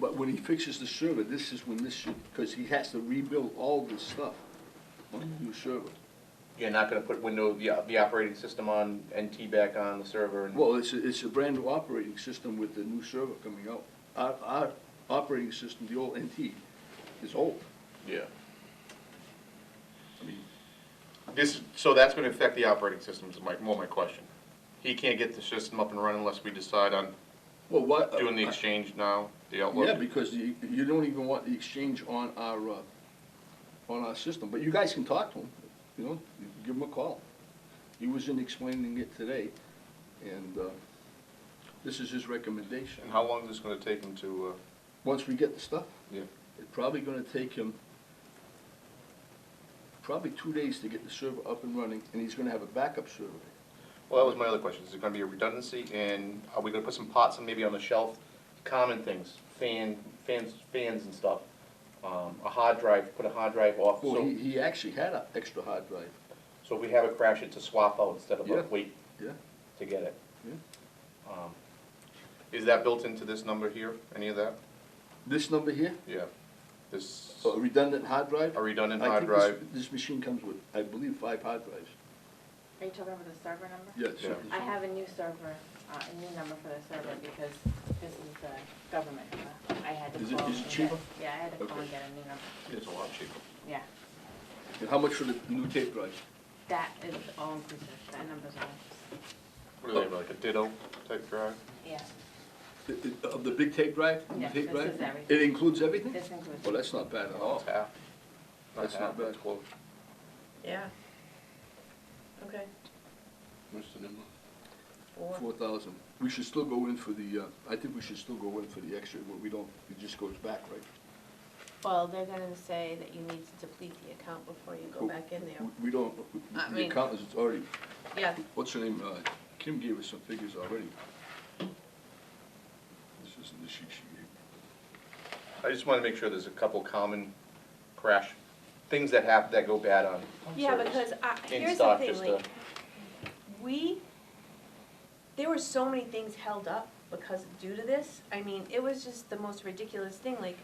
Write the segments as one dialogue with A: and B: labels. A: but when he fixes the server, this is when this should, because he has to rebuild all this stuff on the new server.
B: You're not gonna put Windows, the, the operating system on, NT back on the server and.
A: Well, it's, a- it's a brand new operating system with the new server coming out. Our, our operating system, the old NT, is old.
B: Yeah.
A: I mean,
B: This, so that's gonna affect the operating systems, is my, more my question. He can't get the system up and running unless we decide on
A: Well, what?
B: doing the exchange now, the Outlook?
A: Yeah, because you, you don't even want the exchange on our, uh, on our system, but you guys can talk to him, you know, you can give him a call. He was in explaining it today, and, uh, this is his recommendation.
B: And how long is this gonna take him to,
A: Once we get the stuff,
B: uh, yeah?
A: it's probably gonna take him probably two days to get the server up and running, and he's gonna have a backup server.
B: Well, that was my other question, is it gonna be a redundancy, and are we gonna put some pots and maybe on the shelf, common things, fan, fans, fans and stuff? Um, a hard drive, put a hard drive off,
A: Well,
B: so,
A: he, he actually had an extra hard drive,
B: so if we have a crash, it's a swap out instead of
A: Yeah.
B: a wait
A: yeah?
B: to get it.
A: Yeah.
B: Um, Is that built into this number here, any of that?
A: This number here,
B: Yeah, this,
A: a redundant hard drive?
B: a redundant
A: I
B: hard
A: think this-
B: drive,
A: This machine comes with, I believe, five hard drives.
C: Are you talking about the server number?
A: Yeah, it's
B: Yeah.
A: something-
C: I have a new server, uh, a new number for the server because this is the government. number. I had to
A: Is it-
C: call.
A: is it
C: and get-
A: cheaper?
C: Yeah, I had to call and
A: Okay.
C: get a new number,
B: it's a lot cheaper.
C: yeah.
A: And How much for the new tape drive?
C: That is all inclusive, that number's all,
B: What do they have, like a ditto type drive?
C: yeah,
A: The- the- Of the big tape drive? the new
C: Yeah,
A: tape
C: this
A: drive?
C: is everything.
A: It includes everything?
C: this
A: Well,
C: includes,
A: that's not bad at all.
B: It's half.
A: Oh. That's not
B: half,
A: bad.
B: it's close.
D: Yeah. Okay,
B: What's the number?
D: four.
A: Four thousand. We should still go in for the, uh, I think we should still go in for the extra, but we don't, it just goes back, right?
E: Well, they're gonna say that you need to deplete the account before you go back in there.
A: We- We don't, we- we-
E: I
A: the
E: mean-
A: accountants, it's already,
E: Yeah,
A: what's her name, uh, Kim gave us some figures already. This isn't the sheet she gave.
B: I just want to make sure there's a couple common crash, things that happen, that go bad on
E: yeah,
B: service.
E: because I,
B: In
E: here's the
B: stock,
E: thing,
B: just
A: uh,
E: like,
B: to-
E: we, there were so many things held up because due to this. I mean, it was just the most ridiculous thing, like,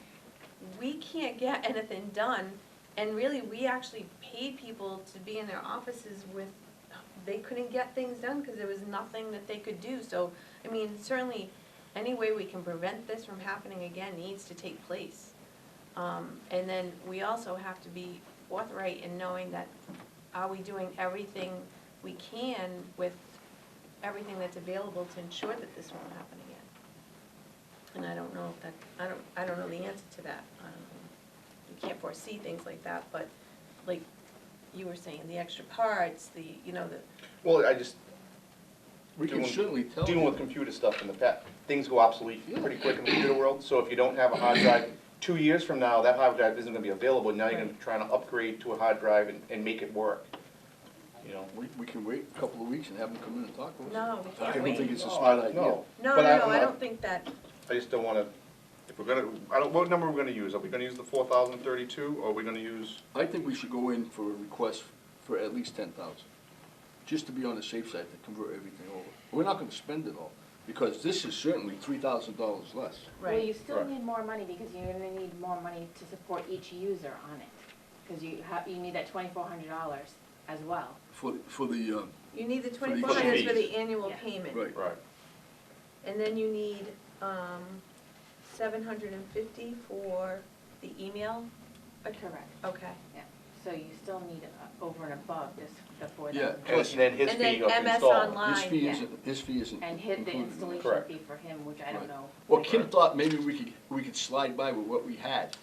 E: we can't get anything done. And really, we actually paid people to be in their offices with, they couldn't get things done because there was nothing that they could do. So, I mean, certainly, any way we can prevent this from happening again needs to take place. Um, and then we also have to be forthright in knowing that are we doing everything we can with everything that's available to ensure that this won't happen again? And I don't know if that, I don't, I don't know the answer to that. Um, You can't foresee things like that, but like you were saying, the extra parts, the, you know, the,
B: Well, I just,
A: We can
B: Doing-
A: certainly tell.
B: dealing with computer stuff in the past, things go obsolete pretty quick in the computer world, so if you don't have a hard drive, two years from now, that hard drive isn't gonna be available, now you're gonna be trying to upgrade to a hard drive and, and make it work, you know?
A: We, we can wait a couple of weeks and have them come in and talk with us.
E: no, we
A: I
E: can't
A: don't
E: wait.
A: think it's a smart idea.
B: No.
E: No, no,
B: But Oh, I-
E: no,
B: I'm
E: I
B: not-
E: don't think that,
B: I just don't wanna, if we're gonna, I don't, what number are we gonna use? Are we gonna use the four thousand thirty-two, or are we gonna use?
A: I think we should go in for a request for at least ten thousand, just to be on the safe side to convert everything over. We're not gonna spend it all, because this is certainly three thousand dollars less.
C: well,
E: right.
C: you still
B: Right.
C: need more money because you're gonna need more money to support each user on it. Cause you have, you need that twenty-four hundred dollars as well.
A: For, for the, um,
E: You need the
A: For the
E: twenty-four hundred for
B: fees.
E: the annual
C: Yeah.
E: payment.
A: right,
B: Right.
E: And then you need, um, seven hundred and fifty for the email?
C: Correct.
E: Okay.
C: So you still need uh, over and above this, the four
A: Yeah.
C: thousand.
B: And then his
E: And then
B: fee of
E: MS
B: installing.
E: Online.
A: his fee
C: yeah.
A: isn't, his fee isn't
C: And hit the
A: included in that.
C: installation
B: Mm-hmm. Correct.
C: fee for him, which I don't
A: Right.
C: know.
A: Well, Kim thought maybe we could, we could slide by with what we had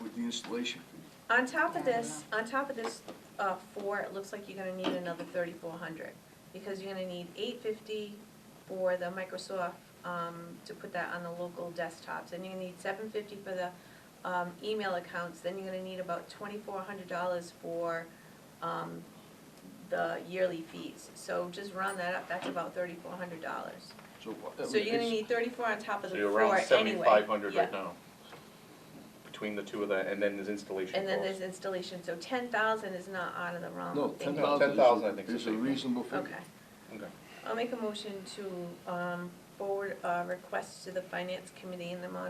A: with the installation fee.
E: On top of
C: Yeah, I don't
E: this, on top of this, uh, four, it looks like you're gonna need another thirty-four hundred, because you're gonna need eight fifty for the Microsoft, um, to put that on the local desktops, and you're gonna need seven fifty for the, um, email accounts, then you're gonna need about twenty-four hundred dollars for, um, the yearly fees, so just round that up, that's about thirty-four hundred dollars.
A: So what-
E: So you're gonna
A: it's-
E: need thirty-four on top of
B: So
E: the
B: you're
E: four
B: around
E: anyway.
B: seventy-five hundred
E: Yeah.
B: right now. Between the two of that, and then there's installation
E: And then there's
B: costs.
E: installation, so ten thousand is not out of the realm
A: No,
E: of
A: ten
E: thinking.
B: $10,000 I
A: thousand
B: think
A: is,
B: is
A: a
B: a-
A: reasonable figure.
E: Okay,
B: Okay.
E: I'll make a motion to, um, forward, uh, request to the finance committee in the amount